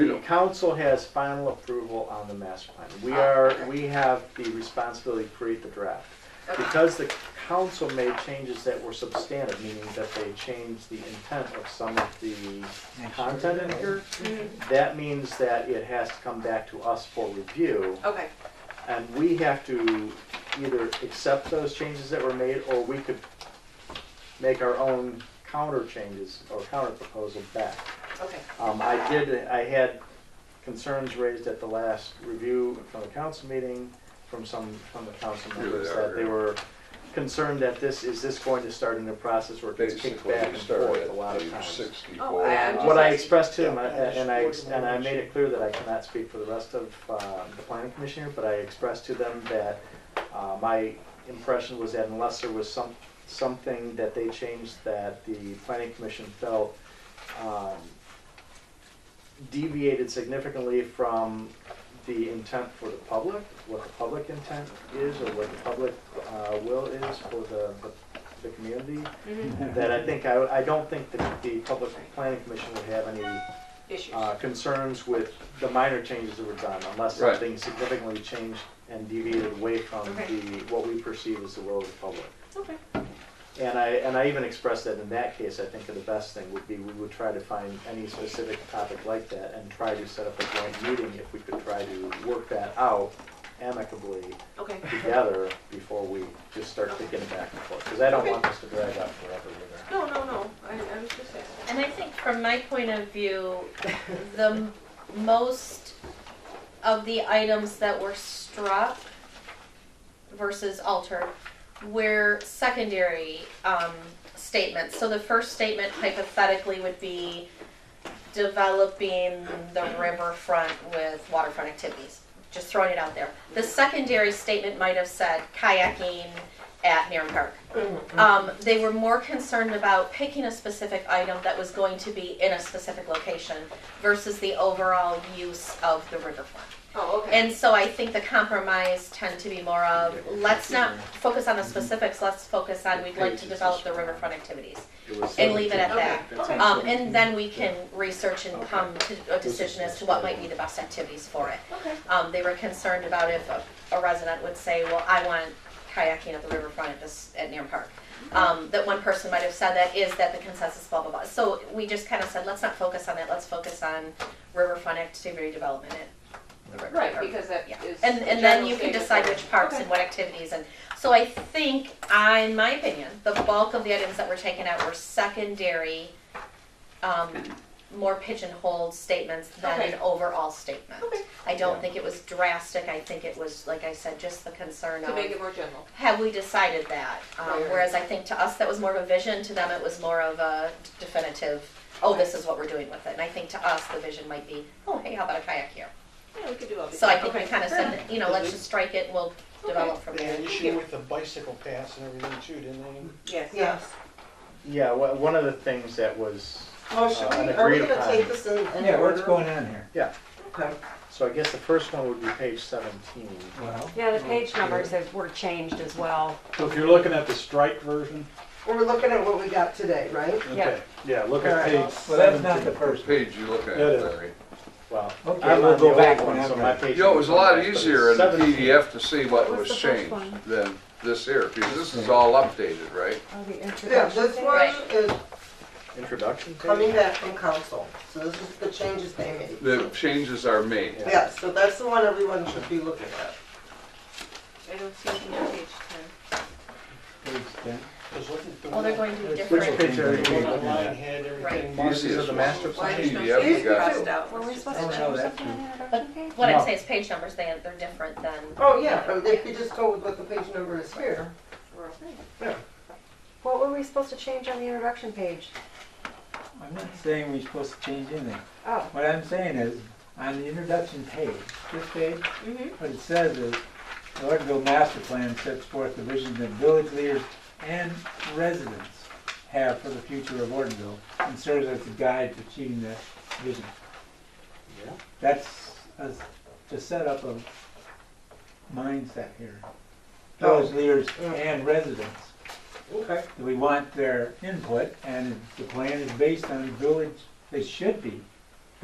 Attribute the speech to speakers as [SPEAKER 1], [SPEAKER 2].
[SPEAKER 1] The council has final approval on the master plan. We are, we have the responsibility to create the draft. Because the council made changes that were substantive, meaning that they changed the intent of some of the content in here, that means that it has to come back to us for review.
[SPEAKER 2] Okay,
[SPEAKER 1] And we have to either accept those changes that were made, or we could make our own counter changes or counter proposal back.
[SPEAKER 2] okay,
[SPEAKER 1] Um, I did, I had concerns raised at the last review from the council meeting, from some, from the council
[SPEAKER 3] Here they
[SPEAKER 1] members,
[SPEAKER 3] are,
[SPEAKER 1] that they
[SPEAKER 3] yeah.
[SPEAKER 1] were concerned that this is this going to start a new process where it gets kicked
[SPEAKER 3] Basically,
[SPEAKER 1] back
[SPEAKER 3] you
[SPEAKER 1] and
[SPEAKER 3] start
[SPEAKER 1] forth a lot
[SPEAKER 3] at
[SPEAKER 1] of
[SPEAKER 3] page
[SPEAKER 1] times.
[SPEAKER 3] sixty-four.
[SPEAKER 2] Oh, I-
[SPEAKER 1] What I expressed to him, I- and I, ex- and I made it clear that I cannot speak for the rest of, uh, the planning commissioner, but I expressed to them that, uh, my impression was that unless there was some, something that they changed that the planning commission felt, um, deviated significantly from the intent for the public, what the public intent is, or what the public, uh, will is for the, the- the community,
[SPEAKER 2] Mm-hmm.
[SPEAKER 1] that I think, I, I don't think that the Public Planning Commission would have any
[SPEAKER 2] issues.
[SPEAKER 1] uh, concerns with the minor changes that were done, unless
[SPEAKER 3] Right.
[SPEAKER 1] something significantly changed and deviated away from
[SPEAKER 2] Okay.
[SPEAKER 1] the, what we perceive as the will of the public.
[SPEAKER 2] Okay,
[SPEAKER 1] And I, and I even expressed that in that case, I think the best thing would be, we would try to find any specific topic like that and try to set up a joint meeting if we could try to work that out amicably
[SPEAKER 2] okay,
[SPEAKER 1] together before we just start kicking it back and forth, because I don't want this to drag out forever either.
[SPEAKER 2] no, no, no, I, I was just asking.
[SPEAKER 4] And I think from my point of view, the m- most of the items that were struck versus altered were secondary um, statements. So the first statement hypothetically would be developing the riverfront with waterfront activities. Just throwing it out there. The secondary statement might have said kayaking at Nairn Park. Um, they were more concerned about picking a specific item that was going to be in a specific location versus the overall use of the riverfront.
[SPEAKER 2] Oh, okay,
[SPEAKER 4] And so I think the compromise tend to be more of, let's not focus on the specifics, let's focus on, we'd like to develop the riverfront activities.
[SPEAKER 1] It was
[SPEAKER 4] And leave it at
[SPEAKER 1] seventeen.
[SPEAKER 2] that.
[SPEAKER 1] That's
[SPEAKER 2] Okay.
[SPEAKER 1] on
[SPEAKER 4] Um, and
[SPEAKER 1] 17.
[SPEAKER 4] then we can research and come to a decision as to what might be the best activities for it.
[SPEAKER 2] okay,
[SPEAKER 4] Um, they were concerned about if a, a resident would say, well, I want kayaking at the riverfront at this, at Nairn Park. Um, that one person might have said that, is that the consensus, blah, blah, blah. So we just kind of said, let's not focus on that, let's focus on riverfront activity development at the river.
[SPEAKER 2] right, because that
[SPEAKER 4] Yeah,
[SPEAKER 2] is.
[SPEAKER 4] and,
[SPEAKER 2] the
[SPEAKER 4] and then
[SPEAKER 2] general
[SPEAKER 4] you can
[SPEAKER 2] statement.
[SPEAKER 4] decide which parks
[SPEAKER 2] Okay.
[SPEAKER 4] and what activities and, so I think, I, in my opinion, the bulk of the items that were taken out were secondary, um, more pigeonholed statements than an
[SPEAKER 2] Okay.
[SPEAKER 4] overall statement.
[SPEAKER 2] Okay.
[SPEAKER 4] I don't
[SPEAKER 1] Yeah.
[SPEAKER 4] think it was drastic, I think it was, like I said, just the concern
[SPEAKER 2] To make
[SPEAKER 4] of,
[SPEAKER 2] it more general,
[SPEAKER 4] have we decided that?
[SPEAKER 2] Right,
[SPEAKER 4] Um,
[SPEAKER 2] right.
[SPEAKER 4] whereas I think to us, that was more of a vision, to them, it was more of a definitive, oh, this is what we're doing with it. And I think to us, the vision might be, oh, hey, how about a kayak here?
[SPEAKER 2] yeah, we could do all these.
[SPEAKER 4] So I think we
[SPEAKER 2] Okay,
[SPEAKER 4] kind of
[SPEAKER 2] fair
[SPEAKER 4] said,
[SPEAKER 2] enough.
[SPEAKER 4] that, you know, let's just strike it, we'll develop from
[SPEAKER 5] They had
[SPEAKER 4] there.
[SPEAKER 5] an issue with the bicycle paths and everything too, didn't they?
[SPEAKER 2] Yes.
[SPEAKER 6] Yes.
[SPEAKER 1] Yeah, wha- one of the things that was,
[SPEAKER 6] Well, should
[SPEAKER 1] Uh,
[SPEAKER 6] we,
[SPEAKER 1] an
[SPEAKER 6] are we
[SPEAKER 1] agreed
[SPEAKER 6] gonna
[SPEAKER 1] upon.
[SPEAKER 6] take this in, in
[SPEAKER 7] Yeah, what's
[SPEAKER 6] order?
[SPEAKER 7] going on here?
[SPEAKER 6] Okay.
[SPEAKER 1] so I guess the first one would be page seventeen.
[SPEAKER 7] Well,
[SPEAKER 8] Yeah, the page numbers have, were changed as well.
[SPEAKER 9] So if you're looking at the strike version,
[SPEAKER 6] We're looking at what we got today, right?
[SPEAKER 8] Yeah.
[SPEAKER 9] okay, yeah, look
[SPEAKER 6] All
[SPEAKER 9] at
[SPEAKER 6] right.
[SPEAKER 9] page
[SPEAKER 7] well, that's not the
[SPEAKER 9] seventeen.
[SPEAKER 3] What
[SPEAKER 7] first.
[SPEAKER 3] page you look at,
[SPEAKER 9] That is.
[SPEAKER 3] Larry?
[SPEAKER 1] Well,
[SPEAKER 7] Okay,
[SPEAKER 1] I'm
[SPEAKER 7] we'll
[SPEAKER 1] on the
[SPEAKER 7] go back
[SPEAKER 1] old
[SPEAKER 7] when
[SPEAKER 1] one,
[SPEAKER 7] I'm
[SPEAKER 1] so my
[SPEAKER 7] ready.
[SPEAKER 1] page.
[SPEAKER 3] You know, it was a lot
[SPEAKER 1] number is
[SPEAKER 3] easier in the
[SPEAKER 1] 17.
[SPEAKER 3] PDF to see what
[SPEAKER 8] What was
[SPEAKER 3] was
[SPEAKER 8] the first
[SPEAKER 3] changed
[SPEAKER 8] one?
[SPEAKER 3] than this here, because this is all updated, right?
[SPEAKER 8] Oh, the
[SPEAKER 6] Yeah,
[SPEAKER 8] introduction
[SPEAKER 6] this
[SPEAKER 8] thing.
[SPEAKER 6] one
[SPEAKER 4] Right.
[SPEAKER 6] is
[SPEAKER 1] Introduction
[SPEAKER 6] coming
[SPEAKER 1] page?
[SPEAKER 6] back from council, so this is the changes they
[SPEAKER 3] The
[SPEAKER 6] made.
[SPEAKER 3] changes are made.
[SPEAKER 6] Yeah, so that's the one everyone should be looking at.
[SPEAKER 2] I don't see anything on page ten.
[SPEAKER 7] Page ten.
[SPEAKER 5] Because wasn't the
[SPEAKER 4] Well, Oh, they're going to be
[SPEAKER 1] Which
[SPEAKER 4] different.
[SPEAKER 1] page are you
[SPEAKER 5] the
[SPEAKER 1] looking
[SPEAKER 5] one line
[SPEAKER 1] at?
[SPEAKER 5] had
[SPEAKER 4] Right.
[SPEAKER 5] everything marked
[SPEAKER 1] Markings of the master
[SPEAKER 2] Why there's
[SPEAKER 1] plan?
[SPEAKER 2] no
[SPEAKER 3] Yeah, we
[SPEAKER 2] statement
[SPEAKER 3] got it.
[SPEAKER 2] crossed out?
[SPEAKER 8] Were we supposed
[SPEAKER 7] Oh,
[SPEAKER 8] to
[SPEAKER 7] no,
[SPEAKER 8] change
[SPEAKER 7] that's
[SPEAKER 8] something on the
[SPEAKER 4] But
[SPEAKER 8] introduction page?
[SPEAKER 4] what I'm
[SPEAKER 1] No.
[SPEAKER 4] saying is page numbers, they, they're different than,
[SPEAKER 6] Oh, yeah, but if you just go with what the page number is here.
[SPEAKER 2] We're okay.
[SPEAKER 8] What were we supposed to change on the introduction page?
[SPEAKER 7] I'm not saying we're supposed to change anything.
[SPEAKER 8] Oh,
[SPEAKER 7] What I'm saying is, on the introduction page, this page,
[SPEAKER 2] Mhm.
[SPEAKER 7] what it says is, the Ortonville Master Plan sets forth the vision that village leaders and residents have for the future of Ortonville and serves as a guide to achieving that vision.
[SPEAKER 1] Yeah.
[SPEAKER 7] That's a- to set up a mindset here. Village leaders and residents.
[SPEAKER 6] Okay.
[SPEAKER 7] We want their input, and the plan is based on village, they should be